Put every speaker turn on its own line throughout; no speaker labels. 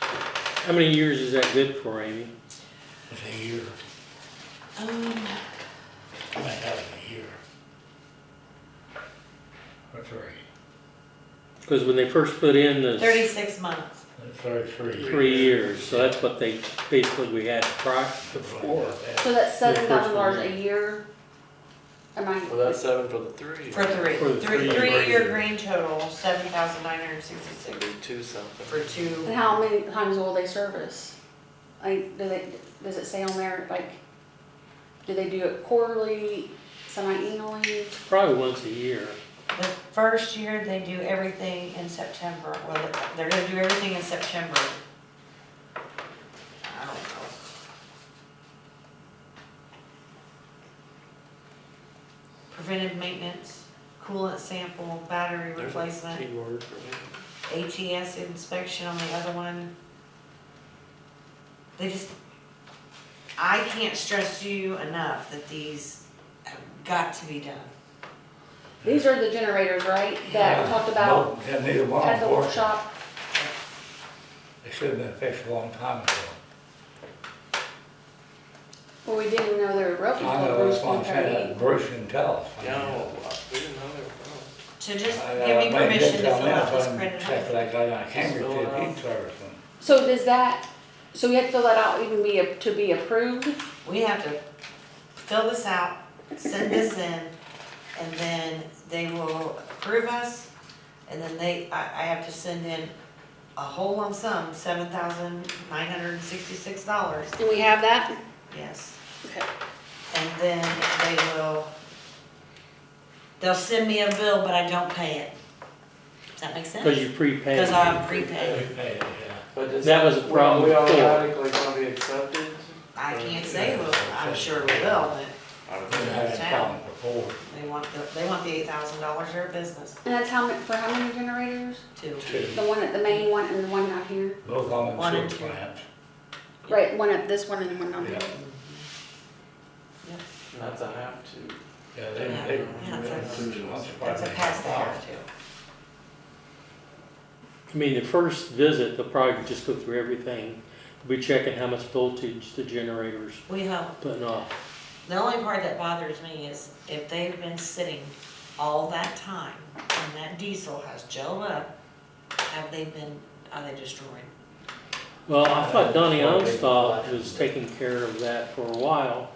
How many years is that good for, Amy?
It's a year,
Um,
I have a year. That's right,
Because when they first put in the
thirty-six months.
that's right, three.
three years, so that's what they, basically we had prior before.
So that's seven
The first
thousand dollars
one.
a year? Am I?
Well, that's seven for the three.
For three,
For the
three,
three
three-year
years.
green total, seven thousand nine hundred
It'd
sixty-six
be two something.
for two.
And how many times will they service? Like, do they, does it say on there, like, do they do it quarterly, semi-annually?
Probably once a year.
The first year, they do everything in September, well, they're gonna do everything in September. I don't know. Preventive maintenance, coolant sample, battery
There's a
replacement.
key word for me.
ATS inspection on the other one. They just, I can't stress to you enough that these have got to be done.
These are the generators, right, that we talked about
Had neither one
at
of
the
them,
workshop?
they should have been fixed a long time ago.
Well, we didn't know they were broken.
I
until
know,
Bruce
that's why I'm
came and
saying, Bruce can tell us.
No, we didn't know they were from.
So just
I, uh,
give me
made
permission to
him
fill
tell me,
out
so
this
I can Check
credit.
that guy on camera,
Fill it
see if
out.
he's servicing.
So does that, so we have to fill that out even be, a- to be approved?
We have to fill this out, send this in, and then they will approve us. And then they, I, I have to send in a whole lump sum, seven thousand nine hundred and sixty-six dollars,
Do we have that?
yes.
Okay.
And then they will, they'll send me a bill, but I don't pay it. Does that make sense?
Because you prepaid.
Because I'm prepaid.
We paid it, yeah.
But does-
That was a
were
problem
We
before.
automatically gonna be accepted?
I can't say, well, I'm sure we will, but
I would
We
think.
had a problem before.
they want the, they want the eight thousand dollars for a business
And that's how, mu- for how many generators?
too.
Two,
The one at the main one and the one out here?
both on
One
the
and
sewer
two.
plants.
Right, one at this one and one down here.
Yeah.
That's a have to.
Yeah, they,
Yeah,
they.
that's
they- once upon
That's a
they-
pass they have to.
I mean, the first visit, they'll probably just go through everything. Be checking how much voltage the generator's
We hope.
putting off.
The only part that bothers me is if they've been sitting all that time and that diesel has gelled up, have they been, are they destroyed?
Well, I thought Donnie Onstott was taking care of that for a while.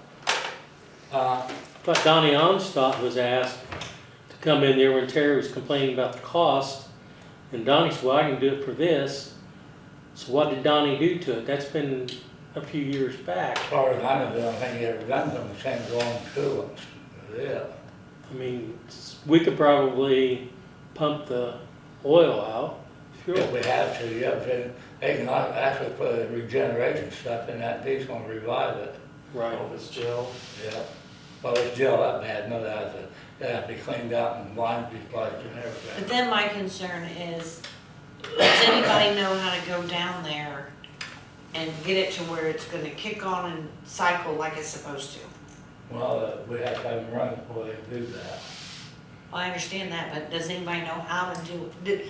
Uh,
I thought Donnie Onstott was asked to come in there when Terry was complaining about the cost. And Donnie said, well, I can do it for this. So what did Donnie do to it? That's been a few years back.
as far as I know, the only thing he ever done to them was send along to us, yeah.
I mean, s- we could probably pump the oil out.
If
Sure.
we have to, yeah, but they can not actually put a regeneration stuff in that, these gonna revive it,
Right.
Oh, it's Jill.
yeah. Well, it's gel up bad, no doubt, it it have to be cleaned out and lines be plugged and
But
everything.
then my concern is, does anybody know how to go down there and get it to where it's gonna kick on and cycle like it's supposed to?
Well, uh, we have to have them run before they do that.
I understand that, but does anybody know how to do, do-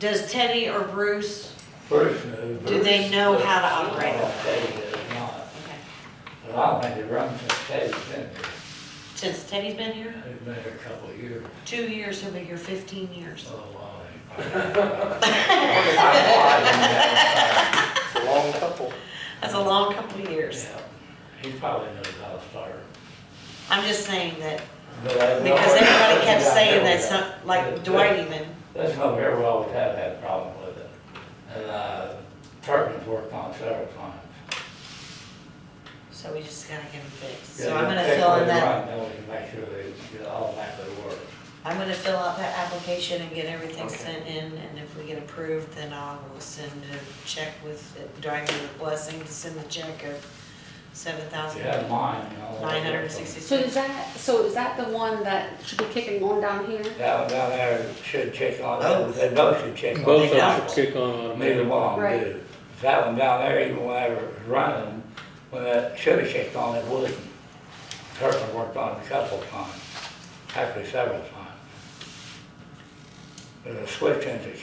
does Teddy or Bruce,
Bruce knew.
do they know how to operate
Well,
it?
Teddy does not,
Okay.
but I don't think it runs since Teddy's been here,
Since Teddy's been here,
he's been here a couple of years,
two years, he'll be here fifteen years.
so, uh.
It's a long couple.
That's a long couple of years.
Yeah, He probably knows how to start.
I'm just saying that,
But I-
because everybody kept saying that, some-
Yeah.
like Dwight even,
That's not very well, we have had a problem with it. And, uh, Tarpon worked on it several times.
so we just gotta get him fixed. So I'm gonna fill in
Yeah, they
that
take what they run, Then we can make sure they automatically work.
I'm gonna fill out that application and get everything
Okay.
sent in, and if we get approved, then I will send a check with, do I need a blessing to send a check of seven
If you
thousand
have mine, you know.
nine hundred and
So is
sixty-six?
that, so is that the one that should be kicking on down here?
That one down there should check on, it. they both should check on.
Oh. Both of
it.
them should kick on
Neither
automatic.
one
Right.
did. That one down there, even when I was running, when I should have checked on it, wouldn't. Turpin worked on it a couple times, actually several times. There's a switch in the